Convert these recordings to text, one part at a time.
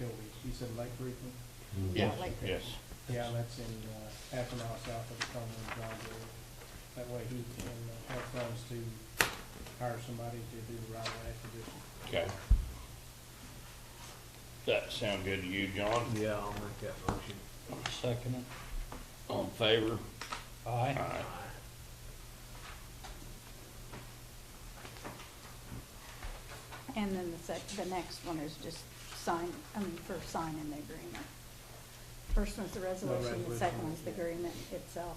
in Lake Region. Yes, like that. yes. The outlet's in, uh, half a mile south of the Cumberland driveway. That way he can uh, have funds to hire somebody to do the right of way acquisition. Okay. That sound good to you, John? Yeah, I'll make that motion. Second it. All in favor? Aye. Aye. And then the sec, the next one is just sign, I mean, for signing the agreement. First one's the resolution, the second resolution. one's the agreement itself.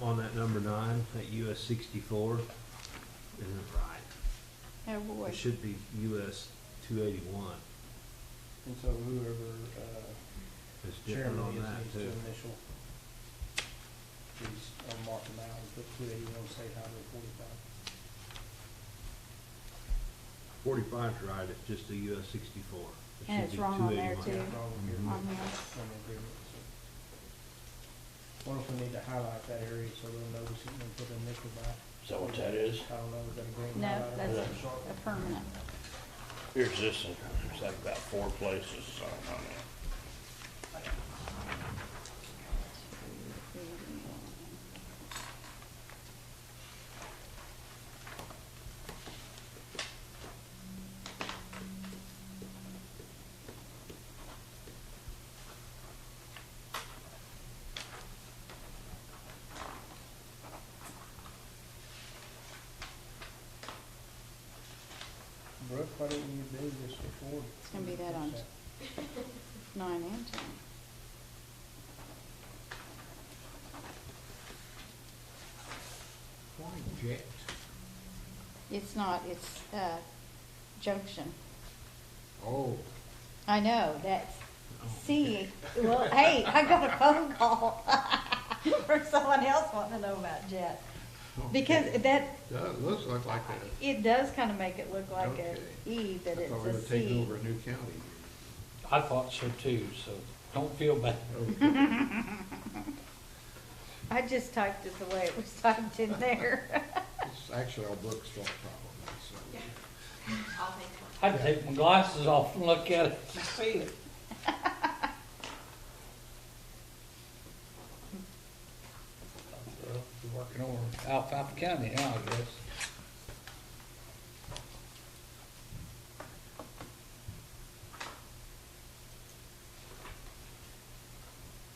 On that number nine, that US sixty-four isn't right. Oh, boy. It should be US two eighty-one. And so whoever, uh, It's different chairman on is that needs to too. initial. These, uh, mark them out and put two eighty-one, state highway forty-five. Forty-five's right, it's just the US sixty-four. It And should it's be wrong on there 281. too. Wrong here. Mm-hmm. On the, on the agreement, so. Wonder if we need to highlight that area so they'll notice it and put an initial by. Is that what that is? I don't know, is that a green No, highlighter? that's a- the permanent. Here's this, one. there's like about four places signed on it. Brooke, why didn't you do this before? It's gonna be that on- Nine and ten. Why jet? It's not, it's, uh, junction. Oh. I know, that's, see, well, hey, I got a phone call from someone else wanting to know about Jet. Because that, It looks like like it does kind of make it look like a Okay. E, but a, I it's thought we a were taking C. over a new county. I thought so too, so don't feel bad. Oh, I just typed it the way it was typed in there. It's actually our book's fault probably, so. I'll take one. I'd take my glasses off and look at it to see it. Well, we're Working over Alfalfa County now, I guess.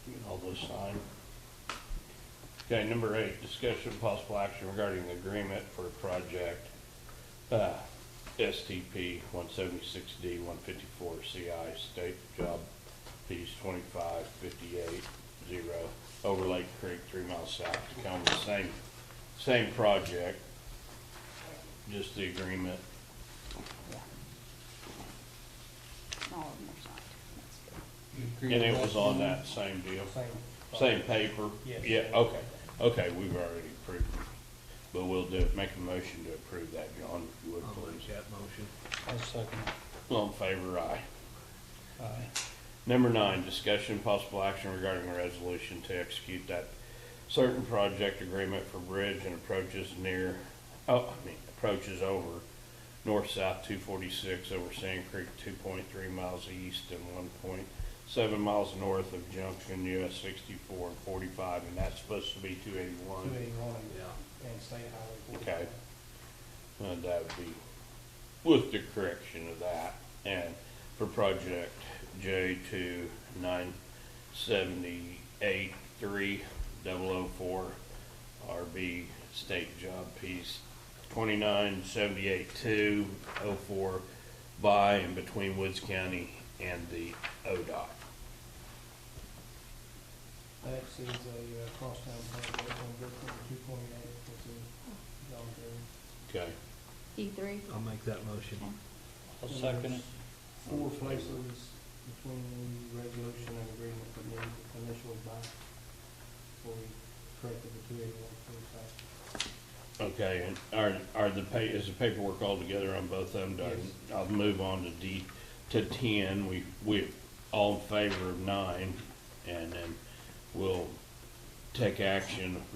Get All those signed. Okay, number eight, discussion of possible action regarding the agreement for project, uh, STP one seventy-six D one fifty-four CI state job piece twenty-five fifty-eight zero over Lake Creek, three miles south, to come the same, same project. Just the agreement, All of them are signed. That's good. You agree and it with was that? on that same deal. Same. Same paper? Yes. Yeah, okay, okay, we've already approved it, but we'll do, make a motion to approve that, John, if you would, I'll make please. that motion. I'll second it. All in favor, aye. Aye. Number nine, discussion and possible action regarding a resolution to execute that certain project agreement for bridge and approaches near, oh, I mean, approaches over north-south two forty-six over Sand Creek, two point three miles east and one point seven miles north of Junction US sixty-four and forty-five, and that's supposed to be two eighty-one. Two eighty-one Yeah. and state highway Okay. forty-five. Uh, that would be with the correction of that, and for project J two nine seventy-eight three double oh four RB state job piece twenty-nine seventy-eight two oh four by and between Woods County and the ODOT. That is a uh, crosstown highway on Brooklyn, two twenty-eight, which is John Green. Okay, E three? I'll make that motion. I'll second it. Four places between the resolution and agreement for the initial by, before we corrected the two eighty-one forty-five. okay, and are, are the pa, is the paperwork all together on both of them? Do I- Yes. I'll move on to D, to ten, we, we, all in favor of nine, and then we'll take action